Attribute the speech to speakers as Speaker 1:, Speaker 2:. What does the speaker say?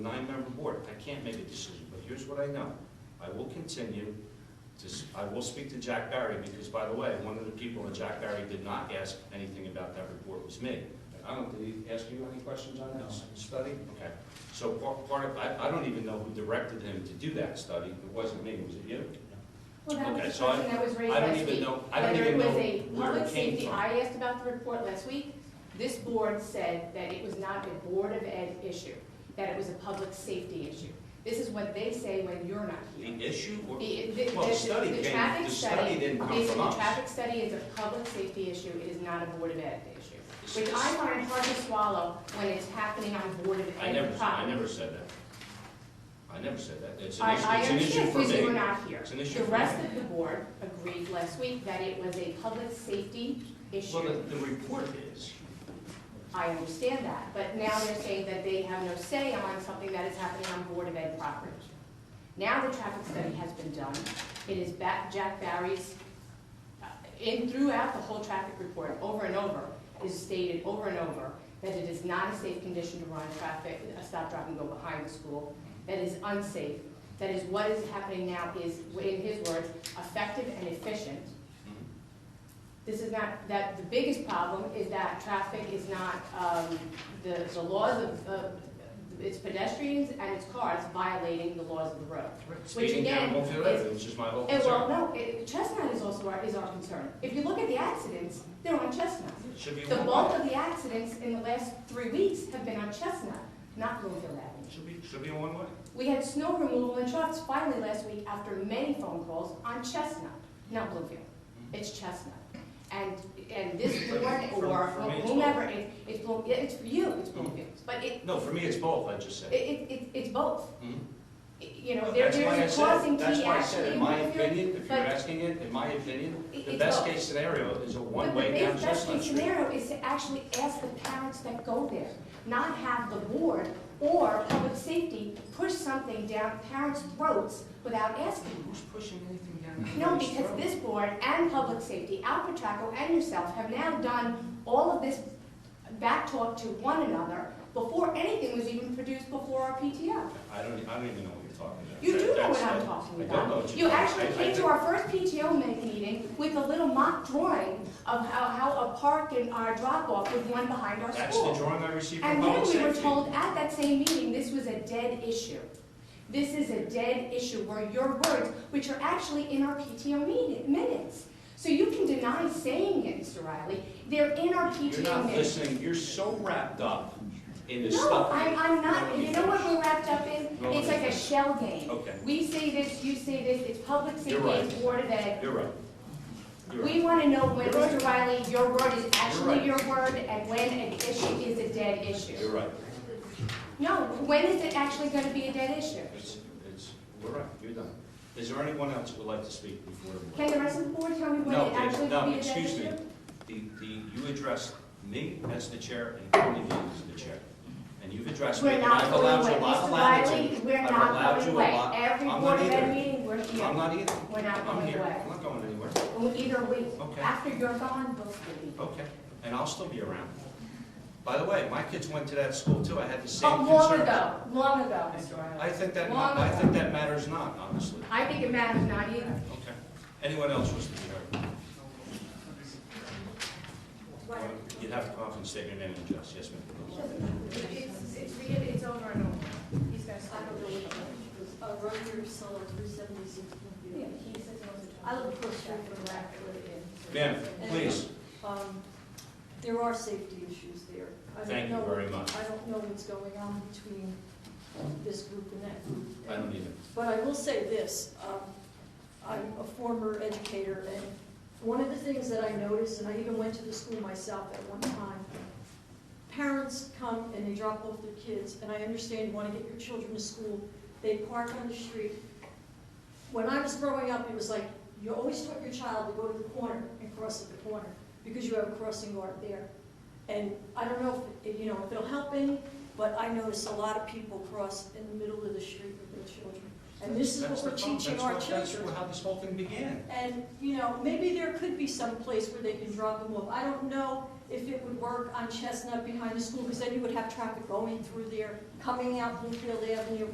Speaker 1: nine-member board, I can't make a decision, but here's what I know. I will continue to, s- I will speak to Jack Barry, because by the way, one of the people that Jack Barry did not ask anything about that report was me. I don't, did he ask you any questions on that s- study? Okay. So part, part of, I, I don't even know who directed him to do that study, it wasn't me, was it you?
Speaker 2: Well, that
Speaker 1: Okay,
Speaker 2: was the
Speaker 1: so I-
Speaker 2: question that was raised
Speaker 1: I don't
Speaker 2: last
Speaker 1: even
Speaker 2: week.
Speaker 1: know, I don't even know
Speaker 2: Whether it was a
Speaker 1: where
Speaker 2: public
Speaker 1: it
Speaker 2: safety,
Speaker 1: came from.
Speaker 2: I asked about the report last week. This board said that it was not a Board of Ed issue, that it was a public safety issue. This is what they say when you're not here.
Speaker 1: The issue, or,
Speaker 2: The, the,
Speaker 1: well, the
Speaker 2: the-
Speaker 1: study
Speaker 2: the
Speaker 1: came,
Speaker 2: traffic
Speaker 1: the study
Speaker 2: study,
Speaker 1: didn't come
Speaker 2: basically,
Speaker 1: from
Speaker 2: the
Speaker 1: us.
Speaker 2: traffic study is a public safety issue, it is not a Board of Ed issue.
Speaker 1: This-
Speaker 2: Which I find hard to swallow when it's happening on Board of Ed
Speaker 1: I never, I
Speaker 2: property.
Speaker 1: never said that. I never said that, it's an
Speaker 2: I,
Speaker 1: issue,
Speaker 2: I
Speaker 1: it's an issue
Speaker 2: understand
Speaker 1: for me.
Speaker 2: because you were not here.
Speaker 1: It's an issue
Speaker 2: The
Speaker 1: for
Speaker 2: rest
Speaker 1: me.
Speaker 2: of the board agreed last week that it was a public safety
Speaker 1: Well,
Speaker 2: issue.
Speaker 1: the, the report is,
Speaker 2: I understand that, but now they're saying that they have no say on something that is happening on Board of Ed property. Now the traffic study has been done. It is ba- Jack Barry's, uh, in, throughout the whole traffic report, over and over, is stated over and over that it is not a safe condition to run traffic, a stop, drop, and go behind the school, that is unsafe, that is what is happening now is, in his words, effective and efficient.
Speaker 1: Mm-hmm.
Speaker 2: This is not, that, the biggest problem is that traffic is not, um, the, the laws of, of, it's pedestrians and it's cars violating the laws of the road.
Speaker 1: Speeding down
Speaker 2: again
Speaker 1: Bloomfield
Speaker 2: is-
Speaker 1: Avenue, which is my whole
Speaker 2: And well,
Speaker 1: concern.
Speaker 2: no, it- Chestnut is also our, is our concern. If you look at the accidents, they're on Chestnut.
Speaker 1: It Should be
Speaker 2: The
Speaker 1: one
Speaker 2: bulk
Speaker 1: way.
Speaker 2: of the accidents in the last three weeks have been on Chestnut, not Bloomfield Avenue.
Speaker 1: Should be, should be a one way.
Speaker 2: We had snow removal and trucks finally last week after many phone calls on Chestnut, not Bluefield.
Speaker 1: Mm-hmm.
Speaker 2: It's Chestnut. And, and this
Speaker 1: For-
Speaker 2: board
Speaker 1: for-
Speaker 2: or
Speaker 1: for me, it's
Speaker 2: whomever, it- it's, Blue- yeah, it's for you, it's
Speaker 1: Mm-hmm.
Speaker 2: Bluefield. But it,
Speaker 1: No, for me, it's both, I just
Speaker 2: it,
Speaker 1: said.
Speaker 2: it, it- it's both.
Speaker 1: Mhm.
Speaker 2: You know, there,
Speaker 1: That's why I
Speaker 2: there's a
Speaker 1: said,
Speaker 2: causing
Speaker 1: that's
Speaker 2: key
Speaker 1: why I said,
Speaker 2: actually
Speaker 1: in
Speaker 2: in
Speaker 1: my
Speaker 2: Bluefield.
Speaker 1: opinion, if you're
Speaker 2: but-
Speaker 1: asking it, in my opinion,
Speaker 2: It-
Speaker 1: the
Speaker 2: it's
Speaker 1: best
Speaker 2: both.
Speaker 1: case scenario is a one
Speaker 2: But the
Speaker 1: way down
Speaker 2: best, best
Speaker 1: Chestnut
Speaker 2: case
Speaker 1: Street.
Speaker 2: scenario is to actually ask the parents that go there, not have the board or public safety push something down parents' throats without asking.
Speaker 1: Who's pushing anything down?
Speaker 2: No,
Speaker 1: anybody's
Speaker 2: because
Speaker 1: throat?
Speaker 2: this board and public safety, Al Petracco and yourself, have now done all of this back talk to one another before anything was even produced before our PTO.
Speaker 1: I don't, I don't even know what you're talking about.
Speaker 2: You
Speaker 1: That-
Speaker 2: do know
Speaker 1: that's-
Speaker 2: what I'm
Speaker 1: that-
Speaker 2: talking
Speaker 1: I don't know
Speaker 2: about.
Speaker 1: what
Speaker 2: You
Speaker 1: you're talking
Speaker 2: actually
Speaker 1: about. I- I
Speaker 2: came to
Speaker 1: think-
Speaker 2: our first PTO ma- meeting with a little mock drawing of how, how a park and our drop-off was one behind our
Speaker 1: That's the
Speaker 2: school.
Speaker 1: drawing I received from
Speaker 2: And
Speaker 1: public
Speaker 2: then we
Speaker 1: safety.
Speaker 2: were told at that same meeting, this was a dead issue. This is a dead issue, were your words, which are actually in our PTO meeting- minutes. So you can deny saying it, Mr. Riley, they're in our
Speaker 1: You're
Speaker 2: PTO
Speaker 1: not
Speaker 2: minutes.
Speaker 1: listening, you're so wrapped up in this
Speaker 2: No,
Speaker 1: stuff.
Speaker 2: I'm, I'm not, you know what we're wrapped up in?
Speaker 1: No,
Speaker 2: It's like a
Speaker 1: understand.
Speaker 2: shell game.
Speaker 1: Okay.
Speaker 2: We say this, you say this, it's public safety,
Speaker 1: You're right.
Speaker 2: it's Board of Ed.
Speaker 1: You're right. You're right.
Speaker 2: We want to know when,
Speaker 1: You're right.
Speaker 2: Mr. Riley, your word is
Speaker 1: right.
Speaker 2: actually your word, and when an issue is a dead issue.
Speaker 1: You're right.
Speaker 2: No, when is it actually going to be a dead issue?
Speaker 1: It's, it's, we're right, you're done. Is there anyone else who would like to speak before the
Speaker 2: Can
Speaker 1: board?
Speaker 2: the rest of the board tell me when
Speaker 1: No,
Speaker 2: it
Speaker 1: Dave,
Speaker 2: actually
Speaker 1: no,
Speaker 2: will be a dead
Speaker 1: excuse
Speaker 2: issue?
Speaker 1: me. The, the, you addressed me as the chair and Tony as the chair. And you've addressed me,
Speaker 2: We're
Speaker 1: and
Speaker 2: not
Speaker 1: I've allowed you,
Speaker 2: going
Speaker 1: I've
Speaker 2: away, Mr.
Speaker 1: allowed you.
Speaker 2: Riley, we're
Speaker 1: I've
Speaker 2: not
Speaker 1: allowed
Speaker 2: going
Speaker 1: you a
Speaker 2: away.
Speaker 1: lot.
Speaker 2: Every
Speaker 1: I'm
Speaker 2: board
Speaker 1: not
Speaker 2: of
Speaker 1: either.
Speaker 2: ed meeting, we're
Speaker 1: I'm
Speaker 2: here.
Speaker 1: not either.
Speaker 2: We're not
Speaker 1: I'm
Speaker 2: going
Speaker 1: here.
Speaker 2: away.
Speaker 1: I'm not going anywhere.
Speaker 2: Well, Either we,
Speaker 1: Okay.
Speaker 2: after you're gone, both will be.
Speaker 1: Okay, and I'll still be around. By the way, my kids went to that school too, I had the same
Speaker 2: Oh,
Speaker 1: concerns.
Speaker 2: long ago, long ago, Mr.
Speaker 1: I
Speaker 2: Riley.
Speaker 1: think that,
Speaker 2: Long
Speaker 1: I
Speaker 2: ago.
Speaker 1: think that matters not, honestly.
Speaker 2: I think it matters not either.
Speaker 1: Okay. Anyone else wish to be heard? You'd have to come up and state your name and address, yes, ma'am.
Speaker 3: It's, it's, read it, it's over and over. He's gonna stop.
Speaker 4: I don't know what it was, uh, Roger Solo, three seventy-six
Speaker 2: Yeah,
Speaker 4: Bloomfield.
Speaker 2: he says he wants to talk.
Speaker 4: I live across the street from Rackford and.
Speaker 1: Ma'am, please,
Speaker 4: Um, there are safety issues there. I don't
Speaker 1: thank you
Speaker 4: know-
Speaker 1: very much.
Speaker 4: I don't know what's going on between this group and that group.
Speaker 1: I don't either.
Speaker 4: But I will say this, um, I'm a former educator, and one of the things that I noticed, and I even went to the school myself at one time, parents come and they drop off their kids, and I understand you want to get your children to school, they park on the street. When I was growing up, it was like, you always taught your child to go to the corner and cross at the corner, because you have a crossing guard there. And I don't know if, you know, if it'll help any, but I notice a lot of people cross in the middle of the street with their children. And this is
Speaker 1: That's the
Speaker 4: what we're
Speaker 1: problem.
Speaker 4: teaching
Speaker 1: That's
Speaker 4: our
Speaker 1: what-
Speaker 4: children.
Speaker 1: That's how this whole thing began.
Speaker 4: And, you know, maybe there could be some place where they can drop them off. I don't know if it would work on Chestnut behind the school, because then you would have traffic going through there, coming out Bloomfield Avenue,